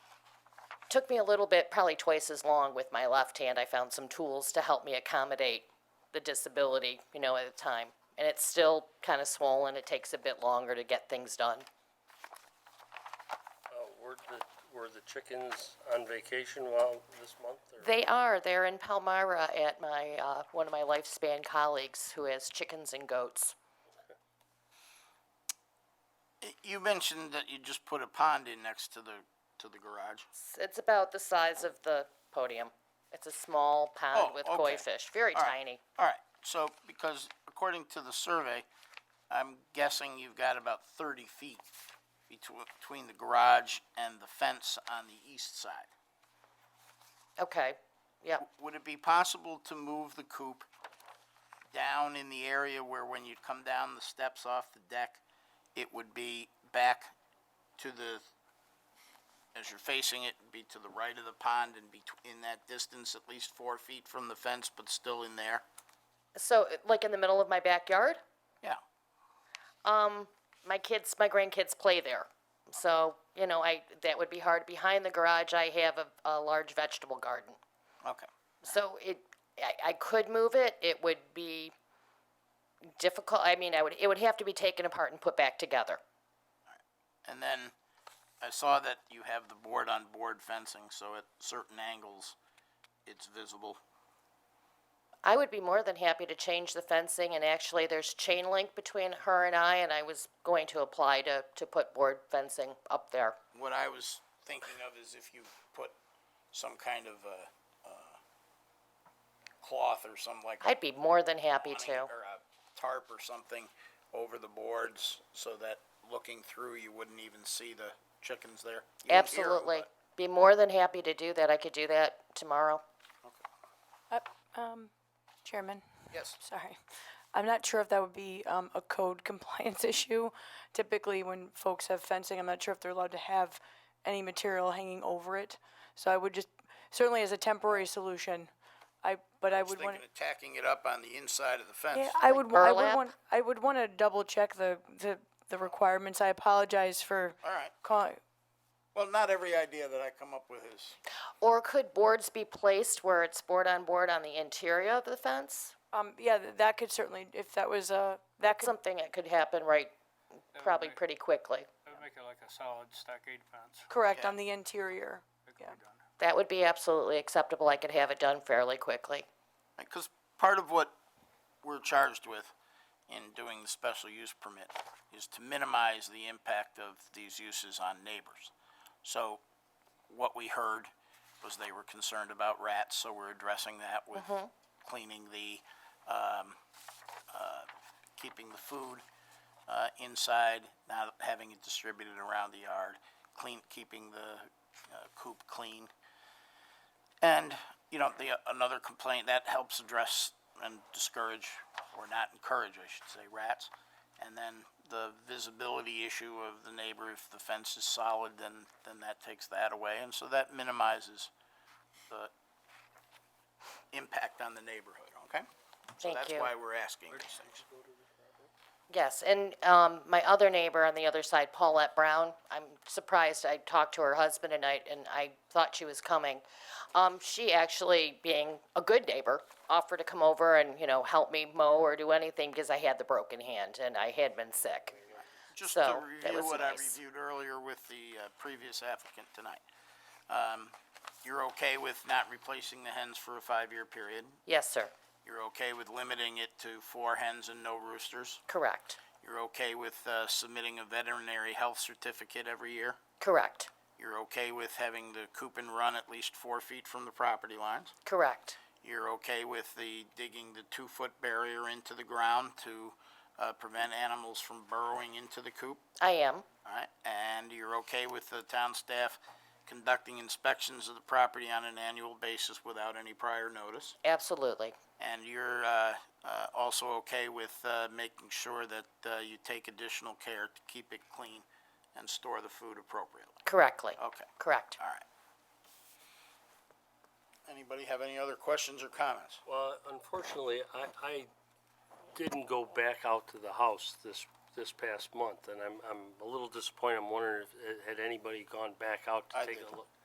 took me a little bit, probably twice as long with my left hand. I found some tools to help me accommodate the disability, you know, at the time. And it's still kind of swollen. It takes a bit longer to get things done. Uh, were the, were the chickens on vacation while this month or? They are. They're in Palmyra at my uh, one of my lifespan colleagues who has chickens and goats. You mentioned that you just put a pond in next to the, to the garage. It's- It's about the size of the podium. It's a small pond Oh, with okay. koi fish, very All right. tiny. All right, so, because according to the survey, I'm guessing you've got about thirty feet between, between the garage and the fence on the east side. Okay. Yep. Would it be possible to move the coop down in the area where when you come down the steps off the deck, it would be back to the, as you're facing it, be to the right of the pond and be in that distance, at least four feet from the fence, but still in there? So, like in the middle of my backyard, Yeah. my kids, my grandkids play there. So, you know, I that would be hard. Behind the garage, I have a, a large vegetable garden. Okay. So it, I, I could move it. It would be difficult. I mean, I would it would have to be taken apart and put back together. And then I saw that you have the board on board fencing, so at certain angles, it's visible. I would be more than happy to change the fencing, and actually, there's chain link between her and I, and I was going to apply to, to put board fencing up there. What I was thinking of is if you put some kind of, uh, uh, cloth or some like. I'd be more than happy awning to. Or a tarp or something over the boards, so that looking through, you wouldn't even see the chickens there. You wouldn't hear 'em, Absolutely. but- Be more than happy to do that. I could do that tomorrow. um, Chairman, Yes, sorry. I'm not sure if that would be um, a code compliance issue. Typically, when folks have fencing, I'm not sure if they're allowed to have any material hanging over it. So I would just, certainly as a temporary solution, I, but I I was would want. thinking of tacking it up on the inside of the fence. Yeah, I would, wa- I would burlap? want, I would want to double check the, the, the requirements. I apologize for All right, calling, well, not every idea that I come up with is. Or could boards be placed where it's board on board on the interior of the fence? um, yeah, th- that could certainly, if that was, uh, that could, Something that could happen right, probably right. pretty quickly. I'd make it like a solid stockade fence. correct, Yeah. on the interior. It could be done. That would be absolutely acceptable. I could have it done fairly quickly. Because part of what we're charged with in doing the special use permit is to minimize the impact of these uses on neighbors. So what we heard was they were concerned about rats, so we're addressing that with cleaning the, um, uh, keeping the food, uh, inside, not having it distributed around the yard, clean, keeping the uh, coop clean. And, you know, the, uh, another complaint, that helps address and discourage, or not encourage, I should say, rats. And then the visibility issue of the neighbor, if the fence is solid, then, then that takes that away, and so that minimizes the impact on the neighborhood, okay? So Thank that's you. why we're asking these things. Yes, and um, my other neighbor on the other side, Paulette Brown, I'm surprised, I talked to her husband tonight, and I thought she was coming. Um, She actually, being a good neighbor, offered to come over and, you know, help me mow or do anything, because I had the broken hand and I had been sick. Just So, to that review was what I nice. reviewed earlier with the uh, previous applicant tonight. Um, You're okay with not replacing the hens for a five-year period? Yes, sir, You're okay with limiting it to four hens and no roosters? correct, You're okay with uh, submitting a veterinary health certificate every year? correct, You're okay with having the coop and run at least four feet from the property lines? correct, You're okay with the digging the two-foot barrier into the ground to uh, prevent animals from burrowing into the coop? I am, All right, and you're okay with the town staff conducting inspections of the property on an annual basis without any prior notice? absolutely, And you're uh, uh, also okay with uh, making sure that uh, you take additional care to keep it clean and store the food appropriately? correctly, Okay, correct. all right. Anybody have any other questions or comments? Well, unfortunately, I, I didn't go back out to the house this, this past month, and I'm, I'm a little disappointed. I'm wondering if, had anybody gone back out I to take did. a look?